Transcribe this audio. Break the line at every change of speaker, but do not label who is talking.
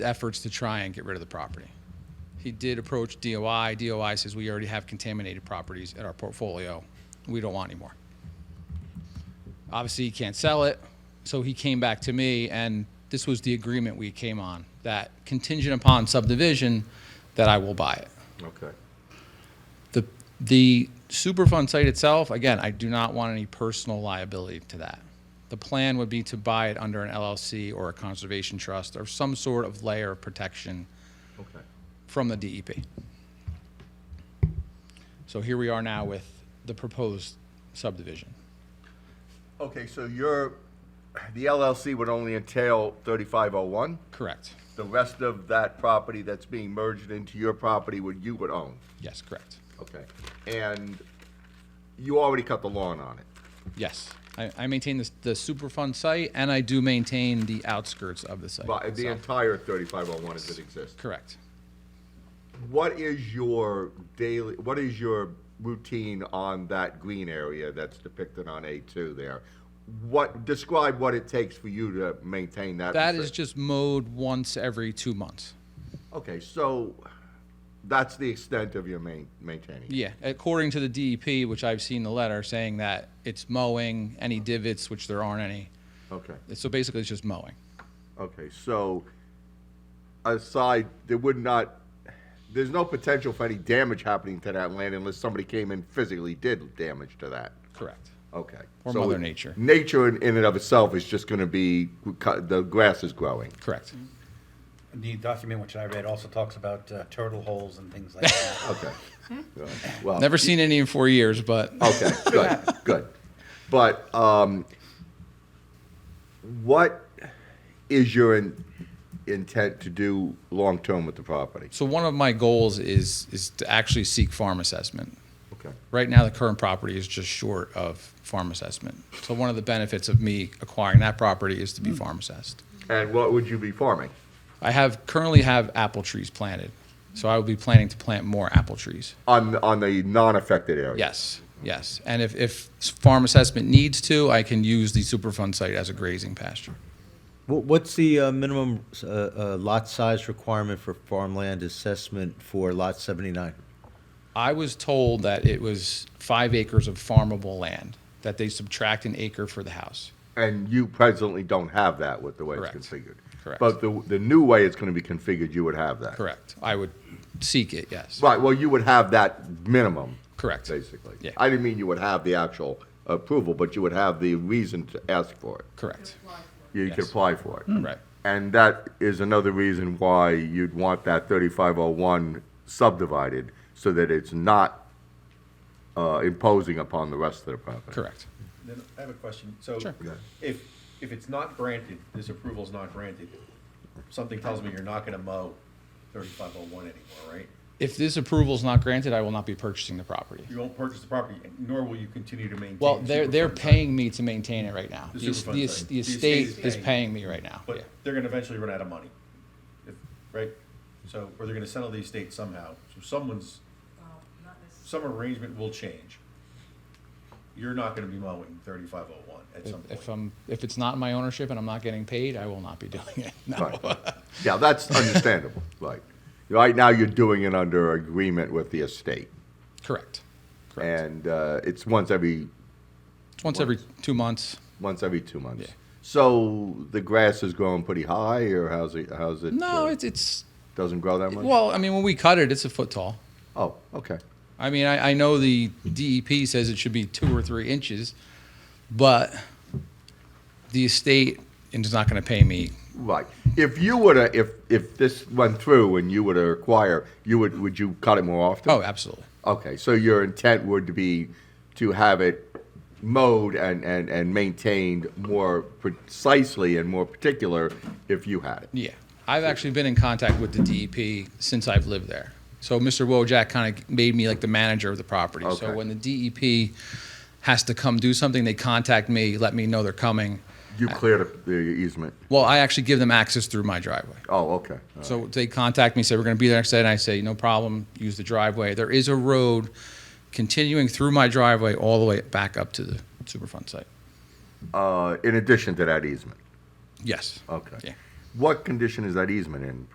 efforts to try and get rid of the property. He did approach DOI. DOI says we already have contaminated properties in our portfolio. We don't want any more. Obviously, he can't sell it, so he came back to me, and this was the agreement we came on, that contingent upon subdivision, that I will buy it.
Okay.
The, the Superfund site itself, again, I do not want any personal liability to that. The plan would be to buy it under an LLC or a conservation trust or some sort of layer of protection
Okay.
from the DEP. So here we are now with the proposed subdivision.
Okay, so your, the LLC would only entail 3501?
Correct.
The rest of that property that's being merged into your property would, you would own?
Yes, correct.
Okay. And you already cut the lawn on it?
Yes. I, I maintain this, the Superfund site and I do maintain the outskirts of the site.
But the
itself.
entire 3501 as it exists?
Correct.
What is your daily, what is your routine on that green area that's depicted on A2 there? What, describe what it takes for you to maintain that.
That is
restriction.
just mowed once every two months.
Okay, so that's the extent of your main, maintaining.
Yeah, according to the DEP, which I've seen the letter saying that it's mowing, any divots, which there aren't any.
Okay,
So basically, it's just mowing.
okay, so aside, there would not, there's no potential for any damage happening to that land unless somebody came and physically did damage to that.
Correct.
Okay.
Or
So
Mother Nature.
Nature in in and of itself is just gonna be, the grass is growing.
Correct.
The document which I read also talks about uh, turtle holes and things like that.
Okay. Well,
Never seen any in four years, but
Okay, good, good. But um, what is your in- intent to do long-term with the property?
so one of my goals is is to actually seek farm assessment.
Okay,
Right now, the current property is just short of farm assessment. So one of the benefits of me acquiring that property is to be farm assessed.
And what would you be farming?
I have currently have apple trees planted, so I will be planning to plant more apple trees.
On, on the non-affected area?
Yes, yes. And if, if farm assessment needs to, I can use the Superfund site as a grazing pasture.
Wha- What's the uh, minimum uh, uh, lot size requirement for farmland assessment for lot 79?
I was told that it was five acres of farmable land, that they subtract an acre for the house.
And you presently don't have that with the way it's
Correct.
configured?
Correct.
But the, the new way it's gonna be configured, you would have that?
Correct. I would seek it, yes.
Right, well, you would have that minimum?
Correct.
Basically?
Yeah.
I didn't mean you would have the actual approval, but you would have the reason to ask for it.
Correct.
You could
Yes. Mm.
apply for it.
Right.
And that is another reason why you'd want that 3501 subdivided, so that it's not uh, imposing upon the rest of the property.
Correct.
Then I have a question. So
Sure.
Yeah.
if, if it's not granted, this approval's not granted, something tells me you're not gonna mow thirty-five oh one anymore, right?
If this approval is not granted, I will not be purchasing the property.
You won't purchase the property, nor will you continue to maintain.
Well, they're, they're
Superfund site.
paying me to maintain it right now.
The
The es-
Superfund
the
site.
es- the
The estate
estate is
is paying.
paying me right now. Yeah.
But they're gonna eventually run out of money, if- right? So, or they're gonna settle the estate somehow. So someone's, some arrangement will change. You're not gonna be mowing thirty-five oh one at some
If- If
point.
I'm, if it's not in my ownership and I'm not getting paid, I will not be doing it. No.
Right. Yeah, that's understandable, right. Right now, you're doing it under agreement with the estate.
Correct. Correct.
And uh, it's once every,
Once every two months.
once every two months.
Yeah.
So the grass is growing pretty high, or how's it, how's it?
No,
uh,
it's it's
Doesn't grow that much?
well. I mean, when we cut it, it's a foot tall.
Oh, okay.
I mean, I, I know the DEP says it should be two or three inches, but the estate is not going to pay me.
Right. If you were to, if, if this went through and you were to acquire, you would, would you cut it more often?
Oh, absolutely.
Okay, so your intent would be to have it mowed and, and, and maintained more precisely and more particular if you had it?
Yeah, I've actually been in contact with the DEP since I've lived there. So Mr. Wojak kind of made me like the manager of the property. So
Okay.
when the DEP has to come do something, they contact me, let me know they're coming.
You cleared up the easement?
Well, I actually give them access through my driveway.
Oh, okay. all
So they contact me, say, we're going to be there next day, and I say, no problem, use the driveway. There is a road continuing through my driveway all the way back up to the Superfund site.
right. Uh, in addition to that easement?
Yes.
Okay.
Yeah.
What condition is that easement in